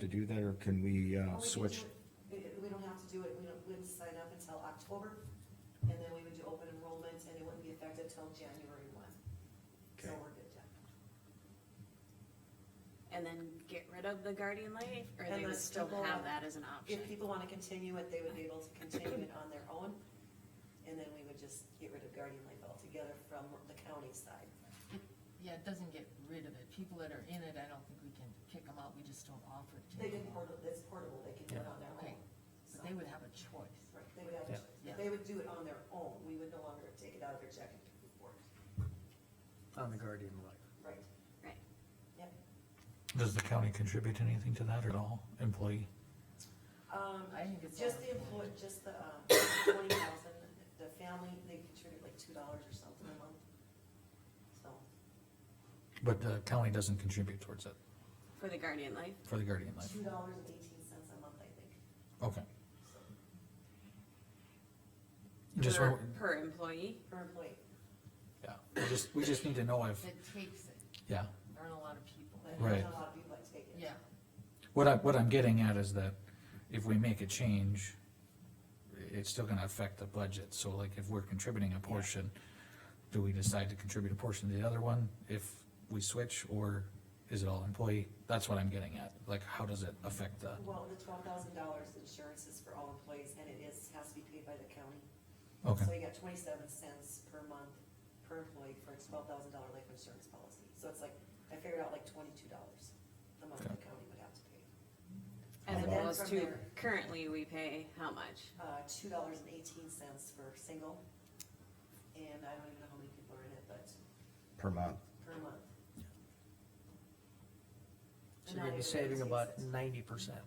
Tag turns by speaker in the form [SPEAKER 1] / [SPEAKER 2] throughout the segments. [SPEAKER 1] to do that, or can we, uh,
[SPEAKER 2] Well, Oh, we could
[SPEAKER 1] switch?
[SPEAKER 2] do it- We don't have to do it, we don't, we wouldn't sign up until October, and then we would do open enrollment, and it wouldn't be effective till January one. So
[SPEAKER 1] Okay.
[SPEAKER 2] we're good, yeah.
[SPEAKER 3] and then get rid of the guardian life, or they would
[SPEAKER 2] Unless
[SPEAKER 3] still
[SPEAKER 2] people-
[SPEAKER 3] have that as an option?
[SPEAKER 2] If people wanna continue it, they would be able to continue it on their own, and then we would just get rid of Guardian Life altogether from the county side.
[SPEAKER 4] Yeah, it doesn't get rid of it. People that are in it, I don't think we can kick them out. We just don't offer it to
[SPEAKER 2] They
[SPEAKER 4] them.
[SPEAKER 2] can portable, it's portable, they can do it on their
[SPEAKER 4] Okay,
[SPEAKER 2] own. So,
[SPEAKER 4] but they would have a choice.
[SPEAKER 2] right, they would have, to-
[SPEAKER 5] Yeah.
[SPEAKER 2] they would do it on their own, we would no longer take it out of their checking report,
[SPEAKER 5] on the Guardian Life.
[SPEAKER 2] right?
[SPEAKER 3] Right.
[SPEAKER 2] Yep.
[SPEAKER 6] Does the county contribute anything to that at all, employee?
[SPEAKER 2] Um,
[SPEAKER 4] I think it's.
[SPEAKER 2] Just
[SPEAKER 4] all-
[SPEAKER 2] the employee, just the, um, twenty thousand, the family, they contribute like two dollars or something a month. So,
[SPEAKER 6] But the county doesn't contribute towards it,
[SPEAKER 3] For the guardian life?
[SPEAKER 6] for the Guardian Life?
[SPEAKER 2] two dollars and eighteen cents a month, I think.
[SPEAKER 6] Okay.
[SPEAKER 2] So,
[SPEAKER 6] Just,
[SPEAKER 3] Per,
[SPEAKER 6] when-
[SPEAKER 3] per employee?
[SPEAKER 2] Per employee,
[SPEAKER 6] yeah, we just, we just need to know if,
[SPEAKER 4] That takes it.
[SPEAKER 6] yeah.
[SPEAKER 4] There aren't a lot of people.
[SPEAKER 2] but
[SPEAKER 6] Right.
[SPEAKER 2] there's a lot of people that take it.
[SPEAKER 4] Yeah,
[SPEAKER 6] What I, what I'm getting at is that if we make a change, it's still gonna affect the budget, so like if we're contributing a portion, do we decide to contribute a portion to the other one if we switch, or is it all employee? That's what I'm getting at, like, how does it affect the,
[SPEAKER 2] Well, the twelve thousand dollars insurance is for all employees, and it is, has to be paid by the county. So
[SPEAKER 6] okay,
[SPEAKER 2] you got twenty-seven cents per month per employee for a twelve thousand dollar life insurance policy. So it's like, I figured out like twenty-two dollars a month the
[SPEAKER 6] Okay.
[SPEAKER 2] county would have to pay.
[SPEAKER 3] As
[SPEAKER 2] And then
[SPEAKER 3] opposed
[SPEAKER 2] from
[SPEAKER 3] to
[SPEAKER 2] there-
[SPEAKER 3] currently we pay how much?
[SPEAKER 2] uh, two dollars and eighteen cents for single. And I don't even know how many people are in it, but
[SPEAKER 1] Per month.
[SPEAKER 2] per month.
[SPEAKER 5] So you're gonna be saving about ninety percent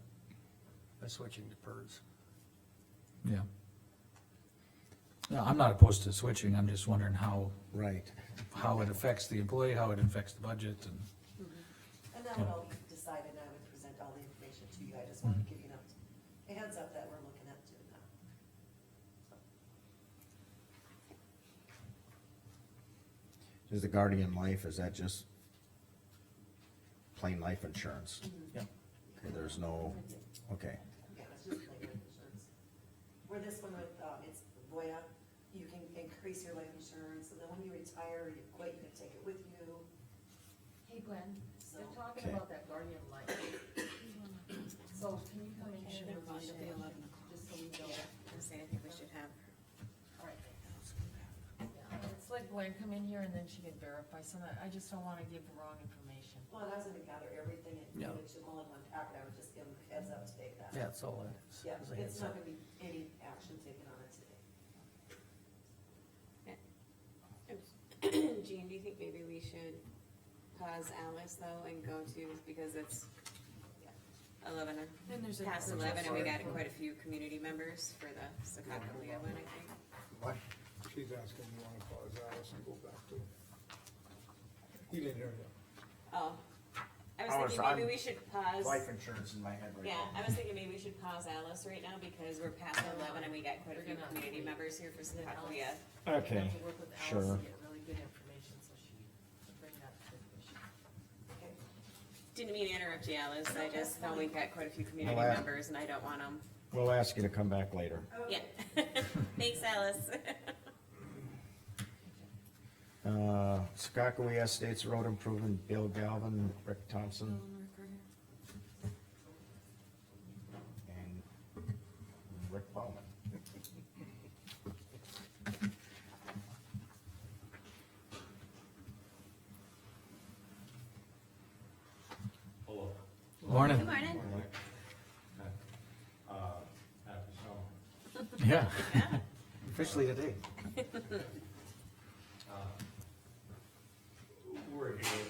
[SPEAKER 5] by switching to PERS.
[SPEAKER 6] yeah. No, I'm not opposed to switching, I'm just wondering how,
[SPEAKER 1] Right.
[SPEAKER 6] how it affects the employee, how it affects the budget, and,
[SPEAKER 2] And that would
[SPEAKER 5] Oh.
[SPEAKER 2] all be decided, and I would present all the information to you, I just wanted to give you enough- a heads up that we're looking at doing that.
[SPEAKER 1] Is the Guardian Life, is that just plain life insurance?
[SPEAKER 5] Yeah.
[SPEAKER 1] Okay, There's no, okay,
[SPEAKER 2] Yeah, it's just like life insurance. Where this one with, um, it's Voya, you can increase your life insurance, and then when you retire, you quit, you can take it with you,
[SPEAKER 4] Hey Glenn,
[SPEAKER 2] so.
[SPEAKER 4] they're talking
[SPEAKER 1] Okay.
[SPEAKER 4] about that Guardian Life. So can you come in
[SPEAKER 3] Okay,
[SPEAKER 4] here
[SPEAKER 3] they're
[SPEAKER 4] and
[SPEAKER 3] fine
[SPEAKER 4] read
[SPEAKER 3] at the
[SPEAKER 4] it?
[SPEAKER 3] 11 o'clock.
[SPEAKER 4] Just so we know.
[SPEAKER 3] I say, I think we should have
[SPEAKER 4] All right. Yeah, It's like Glenn, come in here and then she can verify some, I I just don't wanna give the wrong information.
[SPEAKER 2] Well, and I was gonna gather everything and
[SPEAKER 5] Yeah.
[SPEAKER 2] put it to all in one packet, I would just give them a heads up today that.
[SPEAKER 5] Yeah, that's all it is.
[SPEAKER 2] Yeah,
[SPEAKER 5] It's a heads
[SPEAKER 2] it's not
[SPEAKER 5] up.
[SPEAKER 2] gonna be any action taken on it today.
[SPEAKER 3] her. Jean, do you think maybe we should pause Alice though and go to, because it's eleven,
[SPEAKER 4] Then there's
[SPEAKER 3] past eleven and we got quite a few community members for the Secaucus Leo one, I think.
[SPEAKER 7] What? She's asking, you wanna pause Alice and go back to? He didn't hear you.
[SPEAKER 3] Oh, I
[SPEAKER 1] I was-
[SPEAKER 3] was thinking
[SPEAKER 1] I'm-
[SPEAKER 3] maybe we should pause.
[SPEAKER 1] insurance in my head
[SPEAKER 3] Yeah, I was thinking maybe we should pause Alice right now because we're past eleven and we got quite a few community members here for
[SPEAKER 4] Then Alice-
[SPEAKER 3] Secaucus.
[SPEAKER 4] We
[SPEAKER 1] Okay,
[SPEAKER 4] have to work with Alice
[SPEAKER 1] sure.
[SPEAKER 4] to get really good information, so she can bring that to the commission.
[SPEAKER 2] Okay,
[SPEAKER 3] Didn't mean to interrupt you, Alice, I just thought we got quite a few community
[SPEAKER 1] Well, I-
[SPEAKER 3] members and I don't want them,
[SPEAKER 1] We'll ask you to come back later.
[SPEAKER 3] yeah. Thanks, Alice.
[SPEAKER 1] Uh, Skakawea Estates Road Improvement, Bill Galvin, Rick Thompson, and Rick Bowman.
[SPEAKER 8] Hello.
[SPEAKER 3] Good
[SPEAKER 6] morning,
[SPEAKER 3] morning.
[SPEAKER 8] Uh, happy summer.
[SPEAKER 6] yeah,
[SPEAKER 3] Yeah.
[SPEAKER 1] Officially today.
[SPEAKER 8] Uh, We're here um, Uh, E